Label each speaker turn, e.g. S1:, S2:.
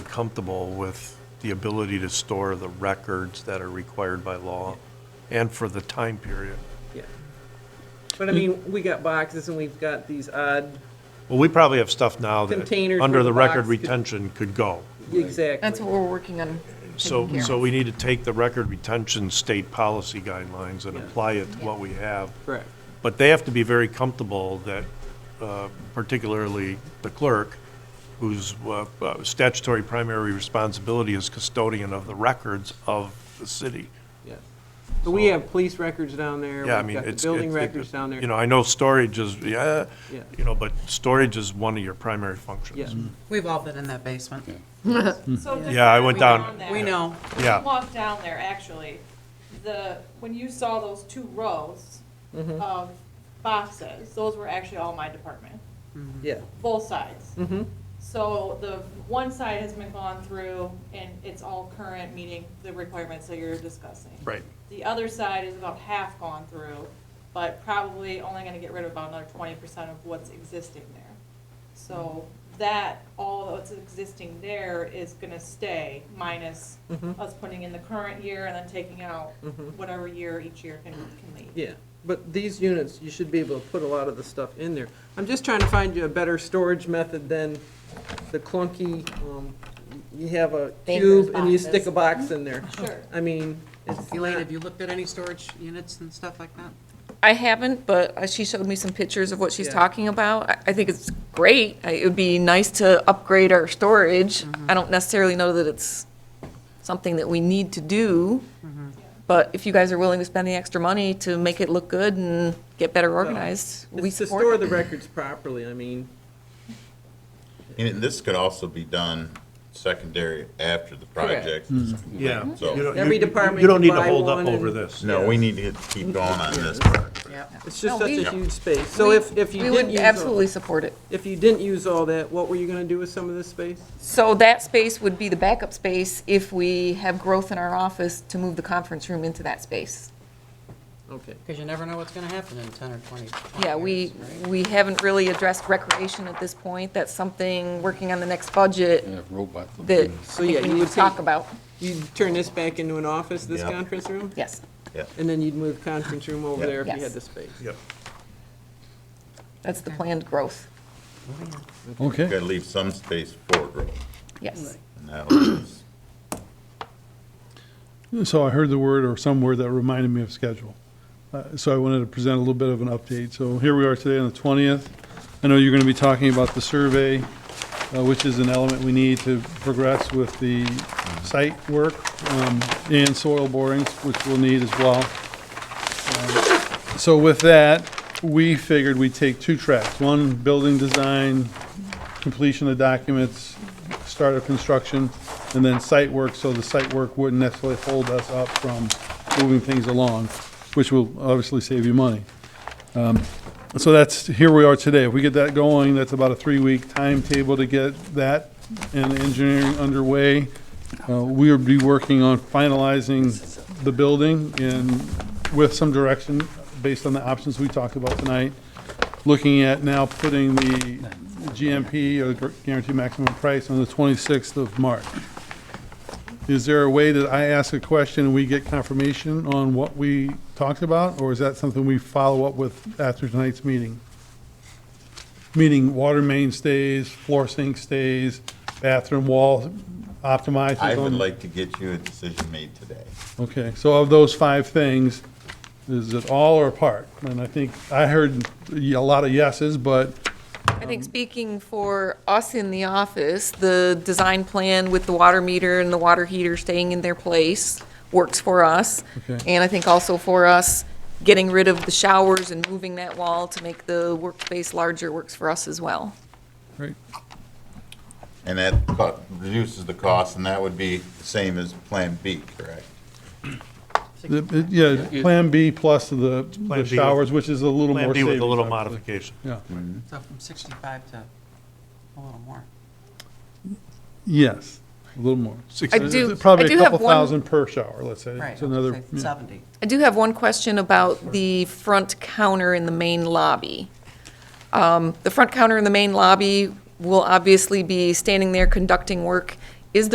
S1: comfortable with the ability to store the records that are required by law and for the time period.
S2: Yeah. Mm. But I mean, we got boxes and we've got these odd,
S1: Well, we probably have stuff now that,
S2: Containers where
S1: under
S2: the
S1: the record
S2: box could-
S1: retention could go.
S2: exactly.
S3: That's what we're working on. taking
S1: So,
S3: care
S1: so
S3: of.
S1: we need to take the record retention state policy guidelines and
S2: Yeah.
S1: apply it to what we have.
S2: Correct.
S1: But they have to be very comfortable that, uh, particularly the clerk, whose uh, uh, statutory primary responsibility is custodian of the records of the city.
S2: Yeah. But we have police records down there.
S1: Yeah, I
S2: we've
S1: mean,
S2: got the
S1: it's.
S2: Building
S1: it- it-
S2: records down there.
S1: You know, I know storage is, yeah,
S2: Yeah.
S1: you know, but storage is one of your primary functions. Mm-hmm.
S2: Yeah.
S4: We've all been in that basement.
S5: So just
S1: Yeah, I went
S5: walk
S1: down-
S5: there.
S4: We know.
S1: Yeah.
S5: Walk down there, actually, the, when you saw those two rows
S4: Mm-hmm.
S5: of boxes, those were actually all my department,
S2: Yeah.
S5: both sides.
S2: Mm-hmm.
S5: So the one side has been gone through and it's all current, meeting the requirements that you're discussing.
S1: Right.
S5: The other side is about half gone through, but probably only gonna get rid of about another twenty percent of what's existing there. So that, all that's existing there is gonna stay minus us putting in the current year and then taking out whatever year each year can, can leave.
S2: Yeah. But these units, you should be able to put a lot of the stuff in there. I'm just trying to find you a better storage method than the clunky, um, you have a
S3: Banker's
S2: cube and you stick
S3: boxes.
S2: a box in there.
S5: Sure.
S2: I mean, it's
S4: Elaine,
S2: not,
S4: have you looked at any storage units and stuff like that?
S3: I haven't, but uh, she showed me some pictures of what she's
S2: Yeah.
S3: talking about. I- I think it's great. I- It would be nice to upgrade our storage. I don't necessarily know that it's something that we need to do, but if you guys are willing to spend the extra money to make it look good and get better organized, we
S2: it's to store
S3: support
S2: the
S3: it.
S2: records properly, I mean,
S6: And this could also be done secondary after the project.
S1: Mm-hmm. Yeah. You
S6: So-
S1: don't-
S2: Every
S1: you-
S2: department
S1: You don't
S2: can
S1: need to
S2: buy
S1: hold up
S2: one
S1: over
S2: and-
S1: this.
S6: No, we need to hit- keep going on this part.
S4: Yeah.
S2: it's just
S3: No,
S2: such
S3: we-
S2: a huge space. So if, if you
S3: We
S2: didn't
S3: would
S2: use all-
S3: absolutely support it.
S2: If you didn't use all that, what were you gonna do with some of this space?
S3: So that space would be the backup space if we have growth in our office to move the conference room into that space.
S2: Okay,
S4: Because you never know what's going to happen in 10 or 20 20
S3: Yeah, we,
S4: years, right?
S3: we haven't really addressed recreation at this point. That's something, working on the next budget,
S7: Yeah, uh, robot.
S3: that
S2: So,
S3: I
S2: yeah,
S3: think we
S2: you
S3: need
S2: would
S3: to talk
S2: take-
S3: about.
S2: you turn this back into an office, this
S6: Yeah.
S2: conference room,
S3: Yes,
S2: and then you'd move conference room over
S6: Yeah.
S2: there if you had
S3: Yes.
S2: the space.
S1: Yep.
S3: that's the planned growth.
S7: Okay,
S6: Gotta leave some space for growth,
S3: Yes.
S6: and that'll give us
S8: So I heard the word or some word that reminded me of schedule. Uh, So I wanted to present a little bit of an update. So here we are today on the 20th. I know you're going to be talking about the survey, uh, which is an element we need to progress with the site work um, and soil borings, which we'll need as well. Um, So with that, we figured we'd take two tracks. One, building design, completion of documents, start of construction, and then site work, so the site work wouldn't necessarily hold us up from moving things along, which will obviously save you money. Um, So that's, here we are today. If we get that going, that's about a three-week timetable to get that and engineering underway. Uh, We will be working on finalizing the building and with some direction based on the options we talked about tonight looking at now putting the GMP, or gu- guaranteed maximum price, on the 26th of March. Is there a way that I ask a question and we get confirmation on what we talked about? Or is that something we follow up with after tonight's meeting? Meaning water main stays, floor sink stays, bathroom wall optimizes?
S6: I would
S8: on-
S6: like to get you a decision made today.
S8: Okay, so of those five things, is it all or part? And I think, I heard a lot of yeses, but
S3: I think speaking for us in the office, the design plan with the water meter and the water heater staying in their place works for us.
S8: Okay.
S3: And I think also for us, getting rid of the showers and moving that wall to make the workspace larger works for us as well.
S8: Right.
S6: And that co- reduces the cost, and that would be the same as Plan B, correct?
S8: The- it- Yeah, Plan B plus the
S1: Plan
S8: the
S1: B
S8: showers, which is a little
S1: Plan
S8: more
S1: B
S8: savings.
S1: with a little
S8: obviously.
S1: modification.
S8: Yeah,
S4: So from 65 to a little more.
S8: yes, a little more.
S1: Six-
S3: I do- I
S8: Probably
S3: do
S8: a
S3: have
S8: couple
S3: one-
S8: thousand per shower, let's say.
S4: Right,
S8: It's another,
S4: say
S8: yeah.
S4: 70.
S3: I do have one question about the front counter in the main lobby. Um, The front counter in the main lobby will obviously be standing there conducting work